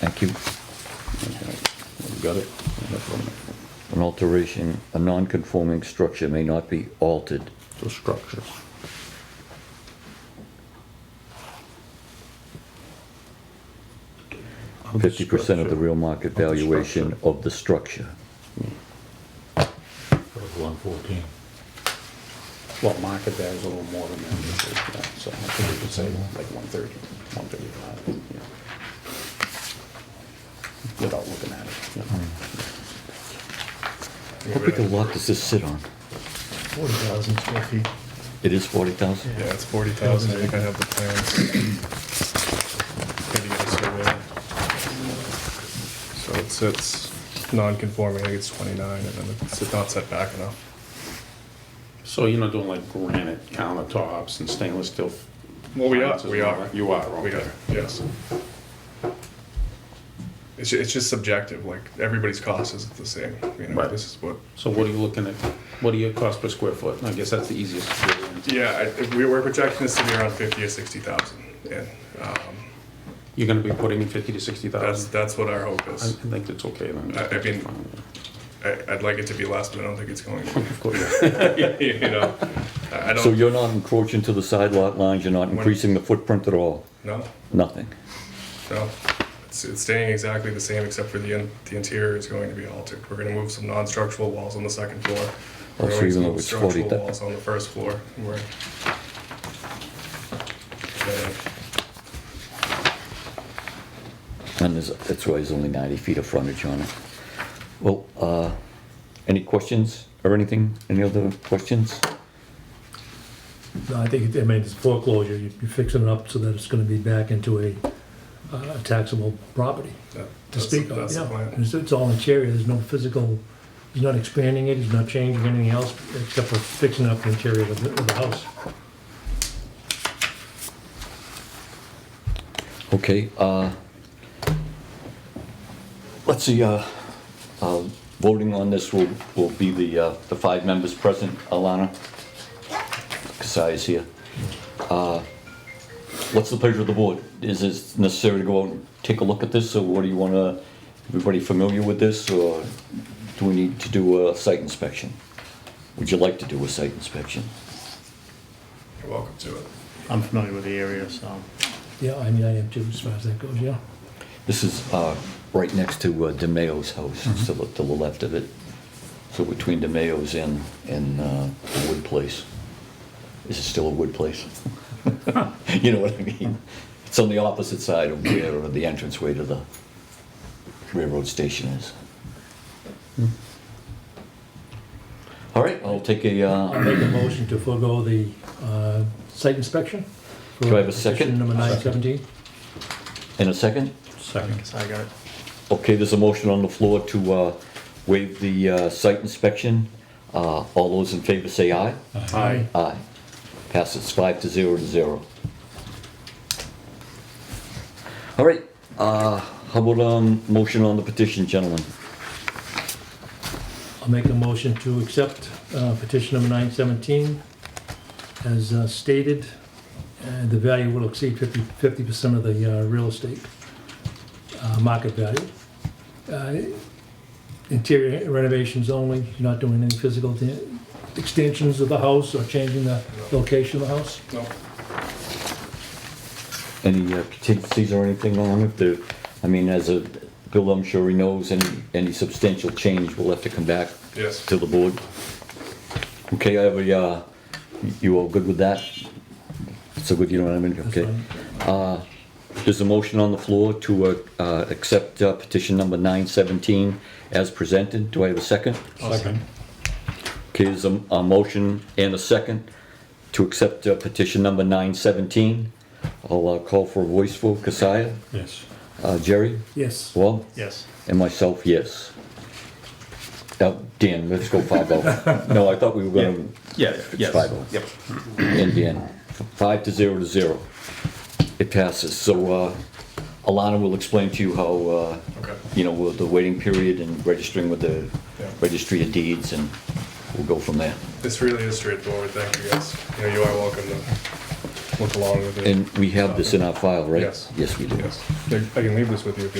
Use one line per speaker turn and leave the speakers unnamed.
Thank you.
We've got it. No problem.
An alteration, a non-conforming structure may not be altered.
So structures.
Fifty percent of the real market
Of the
valuation of the structure.
That was one fourteen.
Well, market there is a little more than that, usually, yeah, so I think we could say like one thirty, one thirty-five, yeah. Without looking at it, you know.
How big a lot does this sit on?
Forty thousand square feet.
It is forty thousand?
Yeah, it's forty thousand, I think I have the plans. Maybe get a survey. So it sits non-conforming, I think it's twenty-nine, and then it's not set back enough.
So you're not doing like granite countertops and stainless steel?
Well, Oh, we are,
appliances
we
and all
are,
that? You are,
we
okay.
are, yes. It's, ju- it's just subjective, like, everybody's cost is the same, you know,
Right.
this is what
So what are you looking at? What are your cost per square foot? I guess that's the easiest. variant.
Yeah, I- if we were projecting this to be around fifty or sixty thousand, and um,
You're gonna be putting in fifty to sixty
that's
thousand?
that's what our hope
Uh, I I
is.
think that's okay then.
I- I mean- I, I'd like it to be less, but I don't think it's going. to be. you know, I I don't.
So you're not encroaching to the side lot lines, you're not increasing the footprint at all?
no,
Nothing?
no, it's, it's staying exactly the same except for the in, the interior is going to be altered. We're going to move some non-structural walls on the second floor.
Oh,
We're
so
going to
even though
move
it's
structural
40,000.
walls on the first floor. and We're. Yeah,
And there's, that's why there's only 90 feet of frontage on it. Well, uh, any questions or anything? Any other questions?
No, I think, it- I mean, it's foreclosure, You- you're fixing it up so that it's gonna be back into a uh, taxable property
that-
to
that's-
speak of,
that's the
yeah.
plan.
And It's, it's all interior, there's no physical, he's not expanding it, he's not changing anything else, except for fixing up the interior of the, of the house.
Okay, uh, let's see, uh, uh, voting on this will, will be the, uh, the five members present, Alana. Kasai is here. Uh, What's the pleasure of the board? Is it necessary to go out and take a look at this, or what do you wanna, everybody familiar with this, or do we need to do a site inspection? Would you like to do a site inspection?
You're welcome to it.
I'm familiar with the area, so.
Yeah, I mean, I am too, as far as that goes, yeah.
This is uh, right next to uh, DeMayo's house, to the, to the left of it. So between DeMayo's and, and uh, the Wood Place. Is it still a Wood Place? You know what I mean? It's on the opposite side of where uh, the entranceway to the railroad station is. All right, I'll take a,
I'll
uh,
make a motion to forego the, uh, site inspection. for
Do I have a
petition
second?
Number nine seventeen.
in a second.
Second. I got it.
Okay, there's a motion on the floor to uh, waive the uh, site inspection. Uh, All those in favor say aye.
Aye.
Aye. Passes five to zero to zero. All right, uh, how about um motion on the petition, gentlemen?
I'll make a motion to accept uh, petition number 917 as uh, stated. and The value will exceed 50 50% of the uh, real estate uh, market value. Uh, Interior renovations only, not doing any physical de- extensions of the house or changing the location of the house.
No.
Any uh, contingencies or anything on it? There- I mean, as a, Bill, I'm sure he knows, any, any substantial change will have to come back
Yes.
to the board. Okay, I have a, uh, you all good with that? So good, you know what I mean? Okay.
fine.
Uh, There's a motion on the floor to uh, uh, accept uh, petition number 917 as presented. Do I have a second?
Second.
Okay, there's a a motion and a second to accept uh, petition number 917. I'll uh, call for a voice vote. Kasia?
Yes.
Uh, Jerry?
Yes.
Well?
Yes.
And myself, yes. Now, Dan, let's go 5-0. No, I thought we were going to
Yeah, yes.
five oh.
Yep.
Indian. Five to zero to zero. It passes. So uh, Alana will explain to you how, uh,
Okay.
you know, with the waiting period and registering with the
Yeah.
registry of deeds, and we'll go from there.
This really is straightforward, thank you guys. You know, you are welcome to look along with it.
And we have this in our file, right?
Yes.
Yes, we do.
Yes. I I can leave this with you if you